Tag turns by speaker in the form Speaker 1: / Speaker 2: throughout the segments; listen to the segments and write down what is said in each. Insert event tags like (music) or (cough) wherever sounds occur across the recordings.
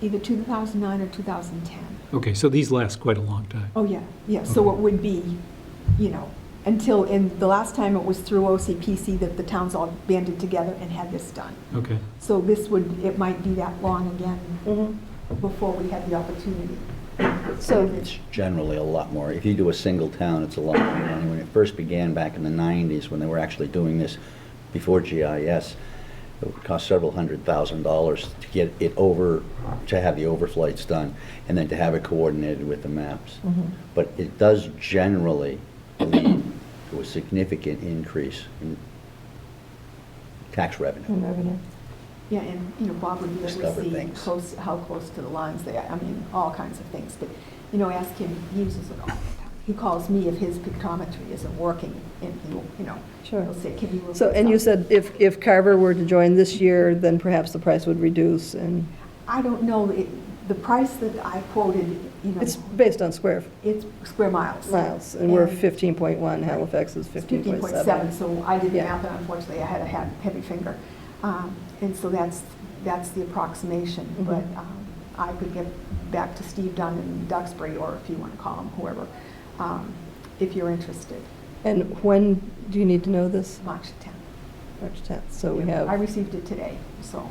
Speaker 1: either 2009 or 2010.
Speaker 2: Okay, so these last quite a long time.
Speaker 1: Oh, yeah, yeah, so it would be, you know, until, and the last time it was through OCPC that the towns all banded together and had this done.
Speaker 2: Okay,
Speaker 1: So this would, it might be that long again
Speaker 3: Mhm.
Speaker 1: before we had the opportunity. So,
Speaker 4: It's generally a lot more. If you do a single town, it's a lot more money. When it first began back in the 90s, when they were actually doing this before GIS, it would cost several hundred thousand dollars to get it over, to have the overflights done, and then to have it coordinated with the maps.
Speaker 3: Mm-hmm.
Speaker 4: But it does generally lead to a significant increase in tax revenue.
Speaker 3: And revenue.
Speaker 1: yeah, and, you know, Bob would be able
Speaker 4: Discover
Speaker 1: to see
Speaker 4: things.
Speaker 1: close, how close to the lines they are, I mean, all kinds of things. But, you know, ask him, he uses it all the time. He calls me if his pictometry isn't working, and he'll, you know,
Speaker 3: Sure.
Speaker 1: he'll say, can you? look
Speaker 3: So,
Speaker 1: this
Speaker 3: and you
Speaker 1: up?"
Speaker 3: said if, if Carver were to join this year, then perhaps the price would reduce and
Speaker 1: I don't know, it, the price that I quoted, you know,
Speaker 3: it's based on square
Speaker 1: it's square miles.
Speaker 3: miles and we're
Speaker 1: And-
Speaker 3: 15.1, Halifax is
Speaker 1: It's 15.7,
Speaker 3: 15.7.
Speaker 1: so I did the
Speaker 3: Yeah.
Speaker 1: math, and unfortunately, I had a ha- heavy finger. Um, And so that's, that's the approximation,
Speaker 3: Mhm.
Speaker 1: but um, I could get back to Steve Dunn in Duxbury, or if you want to call him, whoever, um, if you're interested,
Speaker 3: And when do you need to know this?
Speaker 1: March 10th.
Speaker 3: March 10th, so we
Speaker 1: I
Speaker 3: have,
Speaker 1: received it today, so,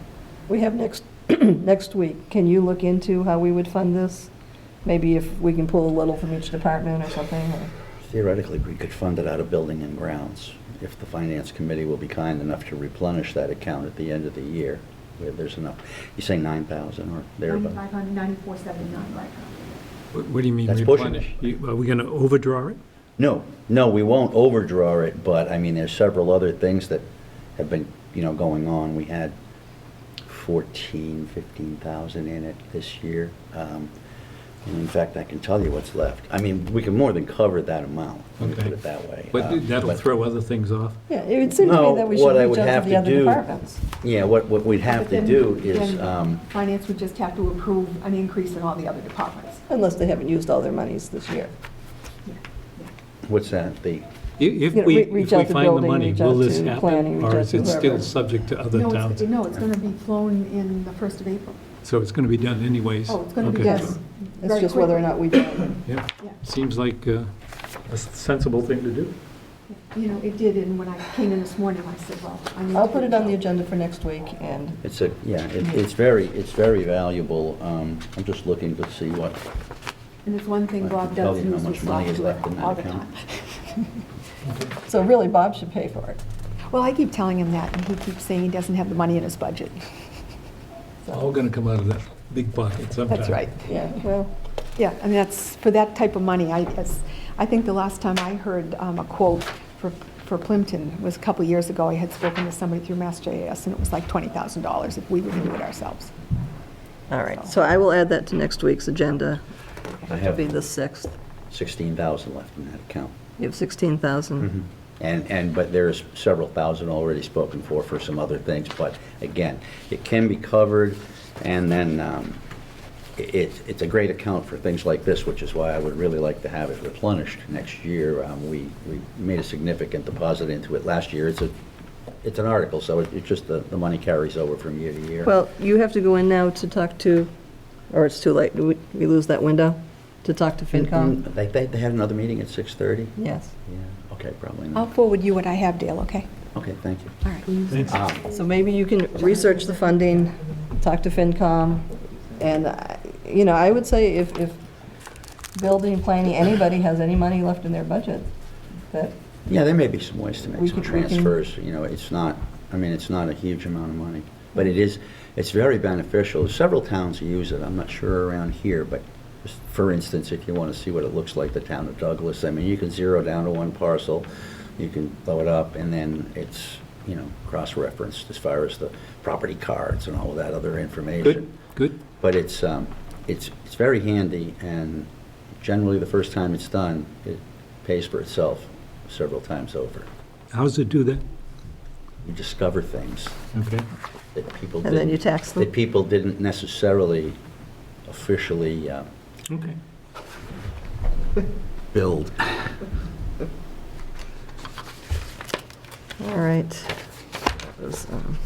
Speaker 3: we have next, (clears throat) next week. Can you look into how we would fund this? Maybe if we can pull a little from each department or something, or-
Speaker 4: Theoretically, we could fund it out of building and grounds if the finance committee will be kind enough to replenish that account at the end of the year, where there's enough, you say 9,000 or thereabouts.
Speaker 1: 9,594.79 right now.
Speaker 2: what what do you mean
Speaker 4: That's pushing
Speaker 2: replenish? You- Are we going to overdraw it?
Speaker 4: No, no, we won't overdraw it, but I mean, there's several other things that have been, you know, going on. We had 14, 15,000 in it this year. Um, and In fact, I can tell you what's left. I mean, we can more than cover that amount, let me
Speaker 2: Okay.
Speaker 4: put it that way. Uh,
Speaker 2: But that'll
Speaker 4: but-
Speaker 2: throw other things off.
Speaker 3: Yeah, it would seem to
Speaker 4: No,
Speaker 3: me that we
Speaker 4: what
Speaker 3: should
Speaker 4: I
Speaker 3: reach
Speaker 4: would
Speaker 3: out to
Speaker 4: have to
Speaker 3: the other
Speaker 4: do-
Speaker 3: departments.
Speaker 4: Yeah, what, what we'd have
Speaker 1: But
Speaker 4: to
Speaker 1: then-
Speaker 4: do is,
Speaker 1: then
Speaker 4: um,
Speaker 1: Finance would just have to approve an increase in all the other departments.
Speaker 3: Unless they haven't used all their monies this year.
Speaker 1: Yeah, yeah.
Speaker 4: what's that, the,
Speaker 2: I- If
Speaker 3: You know,
Speaker 2: we,
Speaker 3: re-
Speaker 2: if
Speaker 3: reach
Speaker 2: we
Speaker 3: out to
Speaker 2: find the
Speaker 3: building,
Speaker 2: money,
Speaker 3: reach
Speaker 2: will
Speaker 3: out
Speaker 2: this
Speaker 3: to planning,
Speaker 2: happen?
Speaker 3: reach
Speaker 2: Or
Speaker 3: out
Speaker 2: is
Speaker 3: to
Speaker 2: it still
Speaker 3: whoever.
Speaker 2: subject to other
Speaker 1: No,
Speaker 2: towns?
Speaker 1: it's, no, it's going to be flown in the first of April.
Speaker 2: So it's going to be done anyways?
Speaker 1: Oh, it's going to be
Speaker 2: Okay.
Speaker 1: done.
Speaker 3: Yes. It's
Speaker 1: very
Speaker 3: just whether or
Speaker 1: quickly.
Speaker 3: not we do.
Speaker 2: Yeah,
Speaker 1: Yeah.
Speaker 2: seems like uh, a sensible thing to do.
Speaker 1: You know, it did, and when I came in this morning, I said, well, I need to.
Speaker 3: I'll put it on the agenda for next week, and
Speaker 4: it's a, yeah, it- it's very, it's very valuable. Um, I'm just looking to see what,
Speaker 1: And it's one thing
Speaker 4: I can
Speaker 1: Bob
Speaker 4: tell
Speaker 1: does
Speaker 4: you how
Speaker 1: use
Speaker 4: much
Speaker 1: his
Speaker 4: money is
Speaker 1: software
Speaker 4: left in that
Speaker 1: all the time. (laughs)
Speaker 4: account.
Speaker 3: so really, Bob should pay for it.
Speaker 1: Well, I keep telling him that, and he keeps saying he doesn't have the money in his budget.
Speaker 2: All going to come out of that big pocket sometime.
Speaker 1: That's right.
Speaker 3: Yeah, well,
Speaker 1: Yeah, and that's, for that type of money, I, that's- I think the last time I heard um, a quote for, for Plimpton was a couple of years ago. I had spoken to somebody through Mass JAS, and it was like $20,000 if we were to do it ourselves.
Speaker 3: all right, so I will add that to next week's agenda,
Speaker 4: I
Speaker 3: it'll be the
Speaker 4: have
Speaker 3: 6th.
Speaker 4: 16,000 left in that account.
Speaker 3: You have 16,000.
Speaker 4: Mm-hmm. And, and, but there's several thousand already spoken for, for some other things, but again, it can be covered, and then um, i- it, it's a great account for things like this, which is why I would really like to have it replenished next year. Um, We, we made a significant deposit into it last year. It's a, it's an article, so it- it's just the, the money carries over from year to year.
Speaker 3: Well, you have to go in now to talk to, or it's too late, we we lose that window, to talk to
Speaker 4: And- and
Speaker 3: FinCom?
Speaker 4: They, they they had another meeting at 6:30?
Speaker 3: Yes.
Speaker 4: Yeah, okay, probably
Speaker 1: I'll
Speaker 4: not.
Speaker 1: forward you what I have, Dale, okay?
Speaker 4: Okay, thank you.
Speaker 1: All right.
Speaker 2: Thanks.
Speaker 4: Um,
Speaker 3: So maybe you can research the funding, talk to FinCom, and, I- you know, I would say if, if building, planning, anybody has any money left in their budget, that,
Speaker 4: Yeah, there may be some ways to
Speaker 3: We
Speaker 4: make some
Speaker 3: could- we can-
Speaker 4: transfers, you know, it's not, I mean, it's not a huge amount of money, but it is, it's very beneficial. Several towns use it, I'm not sure around here, but just for instance, if you want to see what it looks like, the town of Douglas, I mean, you can zero down to one parcel, you can blow it up, and then it's, you know, cross-referenced as far as the property cards and all of that other information.
Speaker 2: Good, good.
Speaker 4: But it's, um, it's, it's very handy, and generally, the first time it's done, it pays for itself several times over.
Speaker 2: How does it do that?
Speaker 4: You discover things
Speaker 2: Okay.
Speaker 4: that people
Speaker 3: and then you
Speaker 4: didn't,
Speaker 3: tax them.
Speaker 4: that people didn't necessarily officially uh,
Speaker 2: Okay.
Speaker 4: build.
Speaker 3: All right. Those, um,